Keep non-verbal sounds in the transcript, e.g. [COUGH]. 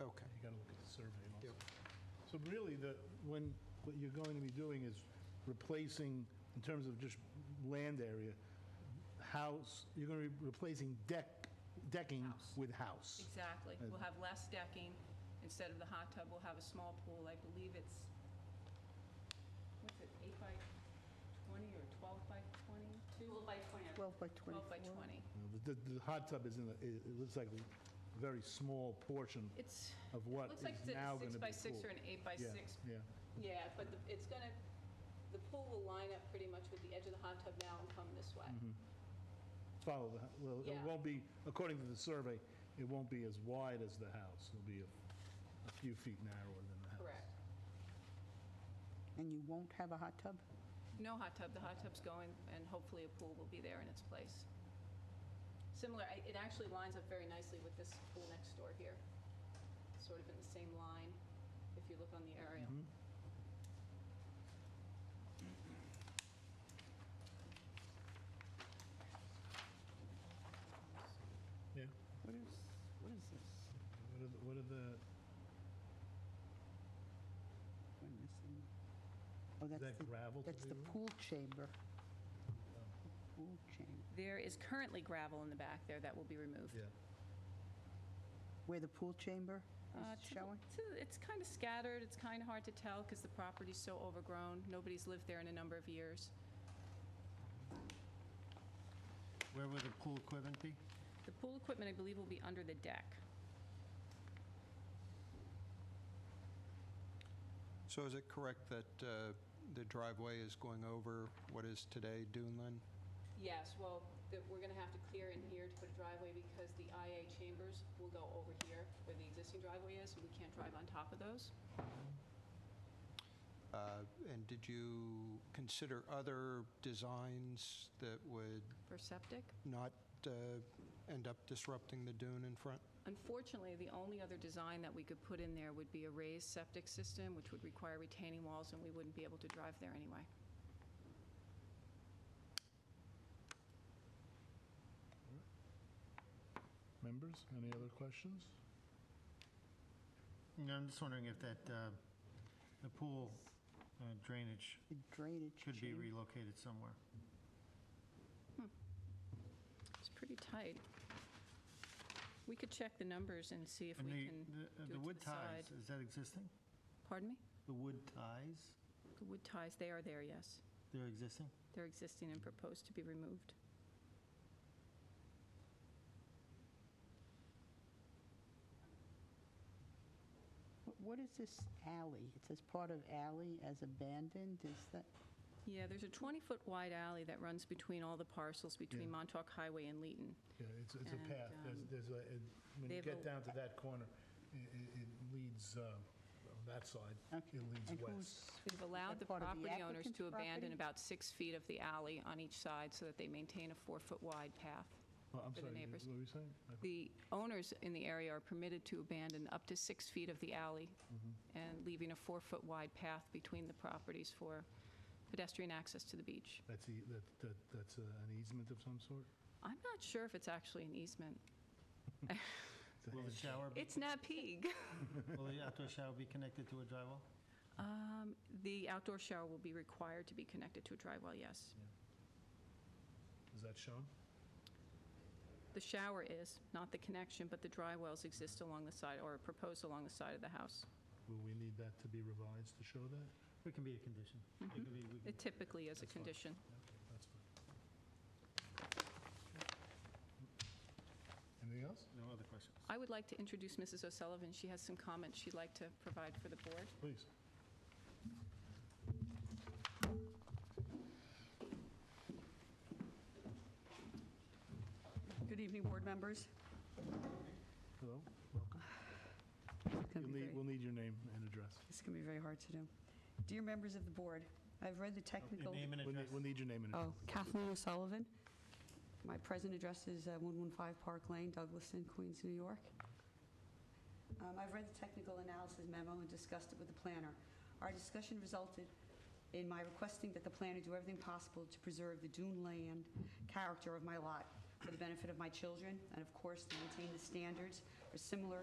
Okay. You got to look at the survey also. Yep. So really, the, when, what you're going to be doing is replacing, in terms of just land area, house, you're going to be replacing deck, decking House. with house. Exactly. We'll have less decking. Instead of the hot tub, we'll have a small pool. I believe it's, what's it, eight by 20 or 12 by 22? 12 by 20. 12 by 12 by 24. You 20. know, The, the- the hot tub is in, the- it it looks like a very small portion It's, of what looks is like it's now a going to six be by six or pool. an eight by Yeah, six. Yeah, Yeah, but the- it's gonna, the pool will line up pretty much with the edge of the hot tub now and come this way. follow the, h- Mm-hmm. well, it Yeah. won't be, according to the survey, it won't be as wide as the house. It'll be a- a few feet narrower than the house. Correct. And you won't have a hot tub? No hot tub, the hot tub's going, and hopefully a pool will be there in its place. Similar, I- it actually lines up very nicely with this pool next door here, sort of in the same line, if you look on the aerial. Mm-hmm. Yeah. What is, what is this? What are the- What are the, Am I missing? Oh, is that's that the, gravel to Oh, that's be the removed? pool chamber. The Pool chamber, There is currently gravel in the back there that will be removed. Yeah. where the pool chamber Uh, is to the- showing? to- It's kind of scattered, it's kind of hard to tell because the property's so overgrown. Nobody's lived there in a number of years. Where would the pool equipment be? The pool equipment, I believe, will be under the deck. So is it correct that uh, the driveway is going over what is today Duneland? Yes, well, that we're gonna have to clear in here to put a driveway because the IA chambers will go over here where the existing driveway is, and we can't drive on top of those. Uh, And did you consider other designs that would For septic? not uh, end up disrupting the dune in front? Unfortunately, the only other design that we could put in there would be a raised septic system, which would require retaining walls, and we wouldn't be able to drive there anyway. Members, any other questions? No, I'm just wondering if that, uh, the pool uh, drainage The drainage should be chamber. relocated somewhere. It's pretty tight. We could check the numbers and see if And we the- can, do the- uh, it The to wood the ties, side. is that existing? pardon me? The wood ties, The wood ties, they are there, yes. they're existing? They're existing and proposed to be removed. Wh- What is this alley? It says part of alley as abandoned, is that, Yeah, there's a 20-foot wide alley that runs between all the parcels between Yeah. Montauk Highway and Leeton. Yeah, it's, it's And, a path. There's, um, there's a, it- when they you get have a- down to that corner, i- i- it leads, uh, on that side, Okay. it And leads who's- west. We've allowed that the part of the property owners applicant's to abandon property? about six feet of the alley on each side so that they maintain a four-foot wide path. Oh, I'm for the sorry, neighbors. what were you saying? I- The owners in the area are permitted to abandon up to six feet of the alley and leaving a four-foot wide path between the properties for pedestrian access to the beach. That's, the- that- that- that's uh, an easement of some sort? I'm not sure if it's actually an easement. It's a Will the hedge. shower, be- It's [LAUGHS] Napeag. will the outdoor shower be connected to a drywall? Um, The outdoor shower will be required to be connected to a dry well, yes. Is that shown? The shower is, not the connection, but the dry wells exist along the side, or are proposed along the side of the house. Will we need that to be revised to show that? It can be a condition. It can be- we can- Mm-hmm. It typically is a That's fine. condition. Okay, that's fine. Anything else? No other questions? I would like to introduce Mrs. O'Sullivan. She has some comments she'd like to provide for the board. Please. Good evening, board members. Hello, welcome. It's gonna You'll be need, very- we'll need your name and address. This is going to be very hard to do. Dear members of the board, I've read the technical... Name and We'll need, address. we'll need your name and address. Oh, Kathleen O'Sullivan. My present address is uh, 115 Park Lane, Douglaston, Queens, New York. Um, I've read the technical analysis memo and discussed it with the planner. Our discussion resulted in my requesting that the planner do everything possible to preserve the dune land character of my lot for the benefit of my children, and of course, to maintain the standards for similar